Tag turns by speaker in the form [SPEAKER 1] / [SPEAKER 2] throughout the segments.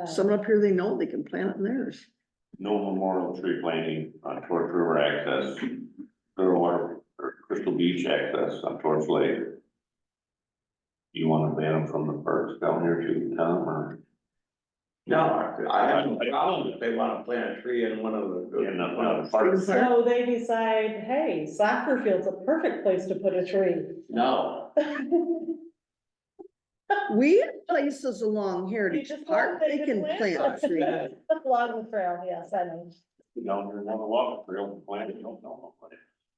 [SPEAKER 1] uh,
[SPEAKER 2] Someone up here, they know they can plant it in theirs.
[SPEAKER 3] no memorial tree planting on Torch River access, Clear Water, or Crystal Beach access on Torch Lake. You wanna ban them from the parks down here too, Tom, or?
[SPEAKER 4] No, I have no problem if they wanna plant a tree in one of the.
[SPEAKER 3] In the- one of the parks.
[SPEAKER 1] So they decide, hey, soccer field's a perfect place to put a tree.
[SPEAKER 4] No,
[SPEAKER 2] We have places along Heritage
[SPEAKER 1] You just want
[SPEAKER 2] Park, they
[SPEAKER 1] them to
[SPEAKER 2] can plant
[SPEAKER 1] plant
[SPEAKER 2] a tree.
[SPEAKER 1] Along the trail, yes, I know.
[SPEAKER 3] Down here, one of the walk, trail planting, don't know.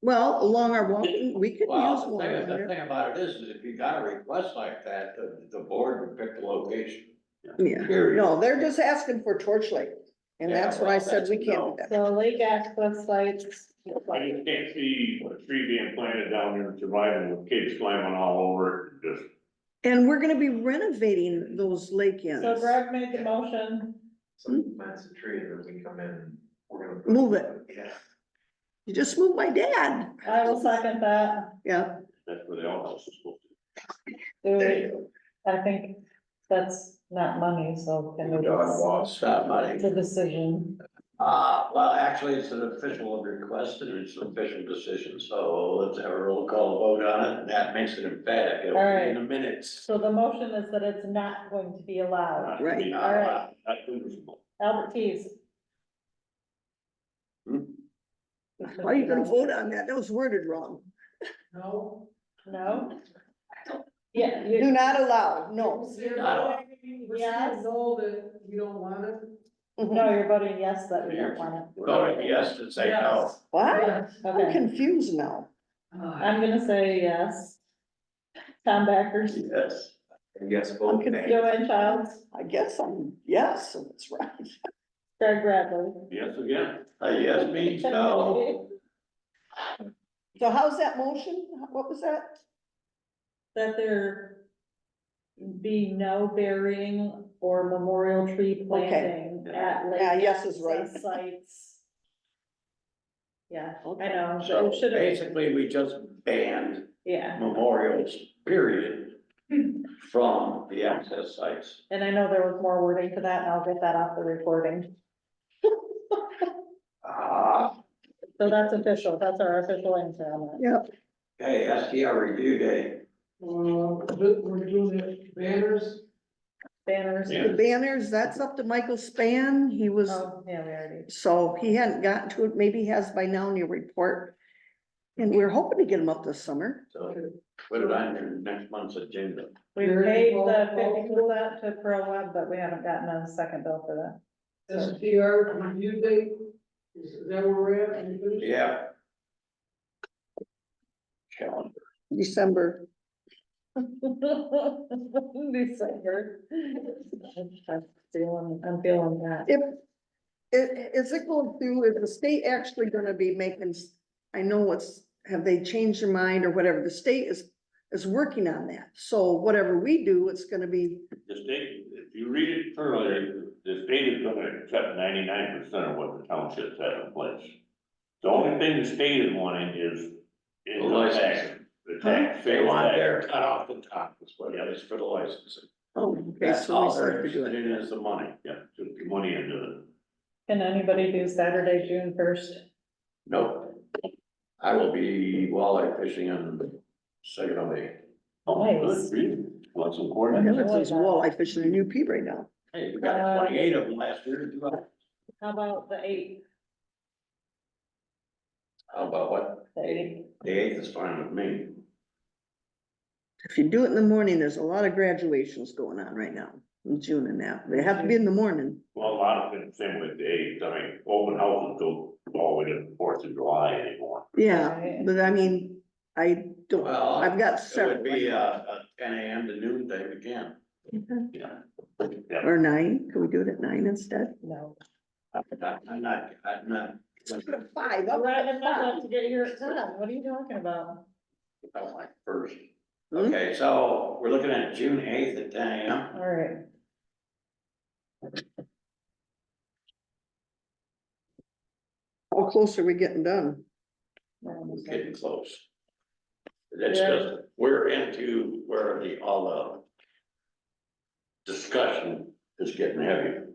[SPEAKER 2] Well, along our walking, we could use
[SPEAKER 4] well, the
[SPEAKER 2] one.
[SPEAKER 4] thing,
[SPEAKER 2] on
[SPEAKER 4] is- the
[SPEAKER 2] there.
[SPEAKER 4] thing about it is, is if you got a request like that, the, the board would pick the location.
[SPEAKER 2] Yeah,
[SPEAKER 4] Period.
[SPEAKER 2] no, they're just asking for torch light, and
[SPEAKER 4] Yeah,
[SPEAKER 2] that's what I
[SPEAKER 4] well,
[SPEAKER 2] said,
[SPEAKER 4] that's
[SPEAKER 2] we can't do
[SPEAKER 4] no.
[SPEAKER 2] that.
[SPEAKER 1] So lake access sites.
[SPEAKER 3] I just can't see a tree being planted down here and surviving with kids climbing all over it, just.
[SPEAKER 2] And we're gonna be renovating those lake ends.
[SPEAKER 1] So Greg made the motion.
[SPEAKER 5] So plants a tree and then we come in, and we're gonna. put-
[SPEAKER 2] Move it.
[SPEAKER 5] Yeah.
[SPEAKER 2] You just moved my dad.
[SPEAKER 1] I will second that.
[SPEAKER 2] Yeah,
[SPEAKER 3] That's where the outhouse is supposed to
[SPEAKER 1] Do
[SPEAKER 5] There
[SPEAKER 1] we-
[SPEAKER 5] you go.
[SPEAKER 1] I think that's not money, so can we
[SPEAKER 5] Dog
[SPEAKER 1] just,
[SPEAKER 5] walks.
[SPEAKER 4] It's not money.
[SPEAKER 1] it's a decision.
[SPEAKER 4] Uh, well, actually, it's an official request and it's an official decision, so let's have a roll call vote on it, and that makes it emphatic, it'll be in the minutes.
[SPEAKER 1] So the motion is that it's not going to be allowed.
[SPEAKER 3] be.
[SPEAKER 2] Right.
[SPEAKER 4] All right.
[SPEAKER 3] Not feasible.
[SPEAKER 1] Albert Keys.
[SPEAKER 4] Hmm?
[SPEAKER 2] why are you gonna vote on that? That was worded wrong.
[SPEAKER 5] No.
[SPEAKER 1] No? Yeah. you-
[SPEAKER 2] Do not allow, no.
[SPEAKER 4] Not
[SPEAKER 1] Yes.
[SPEAKER 5] told that you don't want it.
[SPEAKER 1] No, you're voting yes that we don't want it.
[SPEAKER 4] Voting yes to say no.
[SPEAKER 1] Yes.
[SPEAKER 2] What? I'm
[SPEAKER 1] Okay,
[SPEAKER 2] confused now.
[SPEAKER 5] Uh,
[SPEAKER 1] I'm gonna say yes. Tom Backers,
[SPEAKER 4] Yes.
[SPEAKER 5] Yes,
[SPEAKER 2] I'm
[SPEAKER 5] both.
[SPEAKER 2] confused.
[SPEAKER 1] Joanne Childs,
[SPEAKER 2] I guess I'm, yes, and it's right.
[SPEAKER 1] Greg Bradley.
[SPEAKER 3] Yes, again,
[SPEAKER 4] A Uh, yes means no.
[SPEAKER 2] So how's that motion? What was that?
[SPEAKER 1] That there be no burying or memorial tree planting at lake.
[SPEAKER 2] Yeah, yes is right.
[SPEAKER 1] access Sites. Yeah, I
[SPEAKER 2] Okay.
[SPEAKER 1] know, but
[SPEAKER 4] So
[SPEAKER 1] it should have,
[SPEAKER 4] basically, we just banned
[SPEAKER 1] yeah,
[SPEAKER 4] memorials, period, from the access sites.
[SPEAKER 1] and I know there was more wording to that, and I'll get that off the recording.
[SPEAKER 4] Ah,
[SPEAKER 1] So that's official, that's our official answer on that.
[SPEAKER 2] Yep.
[SPEAKER 4] hey, STR review day.
[SPEAKER 5] we're doing the banners.
[SPEAKER 1] Banners.
[SPEAKER 3] Yeah.
[SPEAKER 2] The banners, that's up to Michael Span. He was,
[SPEAKER 1] Oh, yeah, we already.
[SPEAKER 2] so he hadn't gotten to it, maybe he has by now in your report. And we're hoping to get him up this summer.
[SPEAKER 4] So put it on your next month's agenda.
[SPEAKER 1] We
[SPEAKER 5] Very
[SPEAKER 1] paid
[SPEAKER 5] well
[SPEAKER 1] the fifty
[SPEAKER 5] qualified.
[SPEAKER 1] percent to Pro Web, but we haven't gotten a second bill for that.
[SPEAKER 5] STR review date, is that where we're at?
[SPEAKER 4] Yeah. Calendar.
[SPEAKER 2] December.
[SPEAKER 1] December. I'm feeling, I'm feeling that.
[SPEAKER 2] If, i- is it going through, is the state actually gonna be making, s- I know it's, have they changed their mind or whatever, the state is, is working on that. So whatever we do, it's gonna be,
[SPEAKER 3] the state, if you read it thoroughly, the state is gonna accept ninety-nine percent of what the townships have in place. The only thing the state is wanting is, is the tax, the tax,
[SPEAKER 4] They
[SPEAKER 3] sales
[SPEAKER 4] want their
[SPEAKER 3] tax.
[SPEAKER 4] cut off the top, is what it is for the licensing.
[SPEAKER 2] oh, okay,
[SPEAKER 4] That's
[SPEAKER 2] so we
[SPEAKER 4] all
[SPEAKER 2] still
[SPEAKER 4] they're
[SPEAKER 2] have to do
[SPEAKER 4] interested
[SPEAKER 2] it.
[SPEAKER 4] in is the money.
[SPEAKER 3] Yeah, took the money into it.
[SPEAKER 1] Can anybody do Saturday, June first?
[SPEAKER 4] Nope. I will be walleye fishing on Saginaw Bay.
[SPEAKER 3] Oh,
[SPEAKER 1] Nice.
[SPEAKER 3] good, really? Well, that's
[SPEAKER 2] I
[SPEAKER 3] important.
[SPEAKER 2] know it's those walleye fishing in UP right now.
[SPEAKER 4] Hey, we got twenty-eight of them last year.
[SPEAKER 1] How about the eighth,
[SPEAKER 4] How about what?
[SPEAKER 1] the eighth?
[SPEAKER 4] The eighth is fine with me.
[SPEAKER 2] If you do it in the morning, there's a lot of graduations going on right now, in June and now. They have to be in the morning.
[SPEAKER 3] Well, a lot of things, same with the eighth, I mean, open houses go all the way to the Fourth of July anymore.
[SPEAKER 2] Yeah,
[SPEAKER 1] Right.
[SPEAKER 2] but I mean, I don't,
[SPEAKER 4] Well,
[SPEAKER 2] I've got
[SPEAKER 4] It would
[SPEAKER 2] several,
[SPEAKER 4] be, uh, uh, ten AM to noon time again.
[SPEAKER 3] Yeah.
[SPEAKER 2] or nine, can we do it at nine instead?
[SPEAKER 1] No.
[SPEAKER 4] I'm not, I'm not, I'm not.
[SPEAKER 2] Five,
[SPEAKER 1] All
[SPEAKER 2] up
[SPEAKER 1] right,
[SPEAKER 2] to
[SPEAKER 1] I'm not
[SPEAKER 2] five.
[SPEAKER 1] about to get here at ten, what are you talking about?
[SPEAKER 4] I don't like first.
[SPEAKER 2] Hmm?
[SPEAKER 4] Okay, so we're looking at June eighth at ten AM.
[SPEAKER 1] All right.
[SPEAKER 2] How close are we getting done?
[SPEAKER 4] We're getting close. That's
[SPEAKER 1] Yeah.
[SPEAKER 4] just, we're into where the, all the discussion is getting heavy.